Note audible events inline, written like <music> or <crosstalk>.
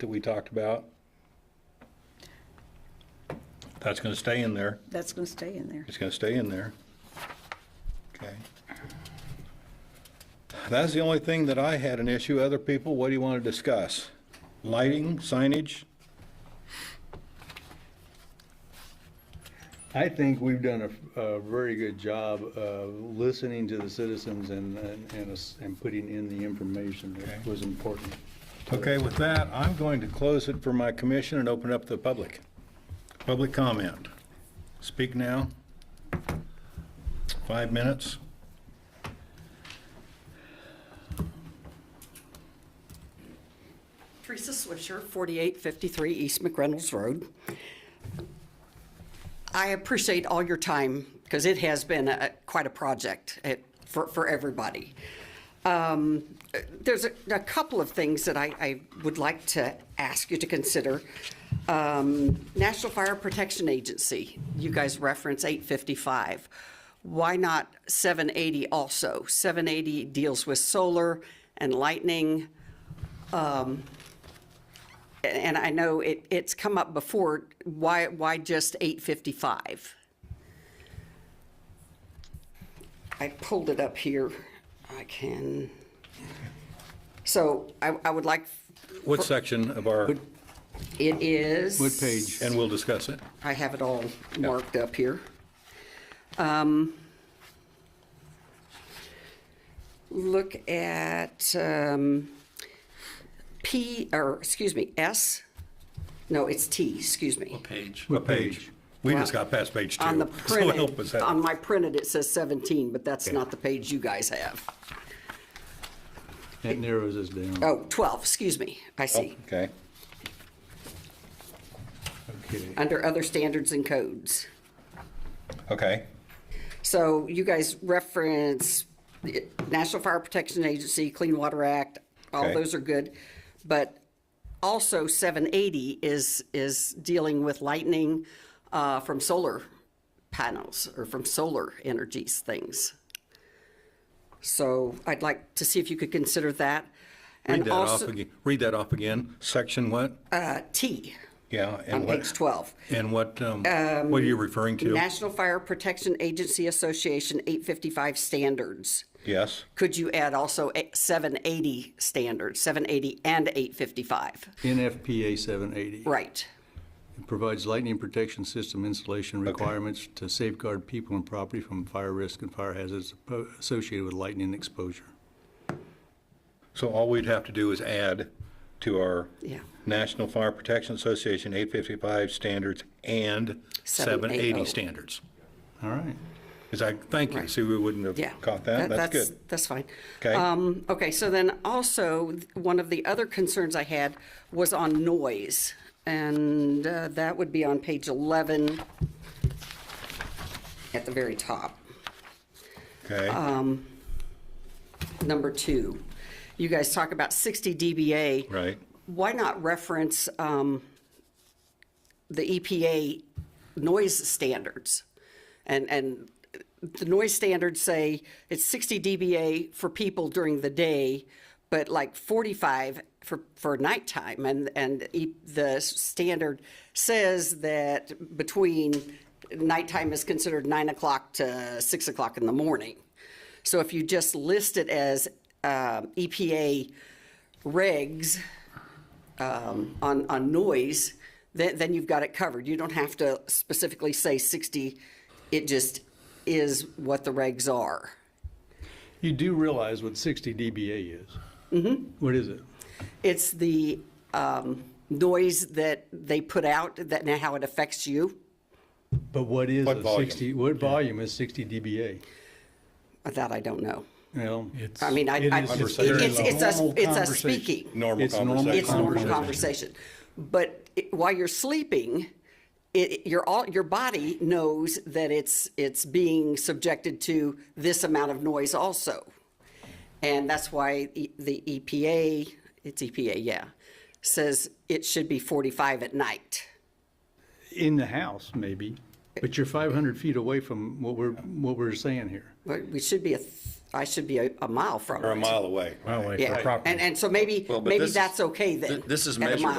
that we talked about. That's gonna stay in there. That's going to stay in there. It's gonna stay in there. Okay. That's the only thing that I had an issue. Other people, what do you want to discuss? Lighting, signage? I think we've done a, a very good job of listening to the citizens and, and, and us- and putting in the information that was important. Okay, with that, I'm going to close it for my commission and open up the public. Public comment. Speak now. Five minutes. Teresa Swisher, 4853 East McReynolds Road. I appreciate all your time because it has been a- quite a project it- for for everybody. Um, uh, There's a a couple of things that I- I would like to ask you to consider. Um, National Fire Protection Agency, you guys reference 855. Why not 780 also? 780 deals with solar and lightning and I know it, it's come up before, why, why just eight fifty-five? I pulled it up here, I can. So I, I would like, What section of our, it is. What page? and we'll discuss it. I have it all marked up here. Um, Look at um, P, or, excuse me, S, no, it's T, excuse me. page. What page? We just got past page two. On the <laughs> So help us printed, out. on my printed, it says 17, but that's not the page you guys have. That narrows us down. Oh, 12, excuse me, I see. Okay. Okay. Under other standards and codes. Okay. So you guys reference the National Fire Protection Agency, Clean Water Act, all Okay. those are good. But also 780 is, is dealing with lightning uh, from solar panels or from solar energies things. So I'd like to see if you could consider that. Read and that off also again. Read that off again. Section what? uh, T Yeah. and on what- page 12. And what, um, what are you referring to? National Fire Protection Agency Association 855 standards. Yes. Could you add also a- 780 standards, 780 and 855? NFPA seven eighty. Right. Provides lightning protection system installation requirements to safeguard people and property from fire risk and fire hazards appo- associated with lightning exposure. So all we'd have to do is add to our Yeah. National Fire Protection Association 855 standards and 780 780. standards. All right. Is I, thank you, Right. see, we wouldn't Yeah. have caught that, That- that's good. That's fine. Okay. Um, Okay, so then also, th- one of the other concerns I had was on noise, and uh, that would be on page 11 at the very top. um, Okay, number two. You guys talk about 60 dBA. Right. Why not reference um, the EPA noise standards? And, and the noise standards say it's 60 dBA for people during the day, but like 45 for, for nighttime. And, and e- the standard says that between nighttime is considered nine o'clock to six o'clock in the morning. So if you just list it as um, EPA regs um, on, on noise, then, then you've got it covered. You don't have to specifically say 60, it just is what the regs are. You do realize what sixty dBA is? Mm-hmm. What is it? It's the um, noise that they put out, that, and how it affects you. But what is What a volume? 60, what volume is 60 dBA? That I don't know. Well, I mean, I, It I- is- it's, very it's us, normal it's us conversation. speaking. normal It's normal conversation. It's normal Conversation. conversation. But it- while you're sleeping, it, your all your body knows that it's it's being subjected to this amount of noise also, and that's why E- the EPA, it's EPA, yeah, says it should be 45 at night. in the house, maybe, but you're 500 feet away from what we're, what we're saying here. But we should be a, th- I should be a, a mile from Or a it. mile away. yeah, and and so maybe Well, but maybe this is- that's okay then. Th- this is at a measurable. mile.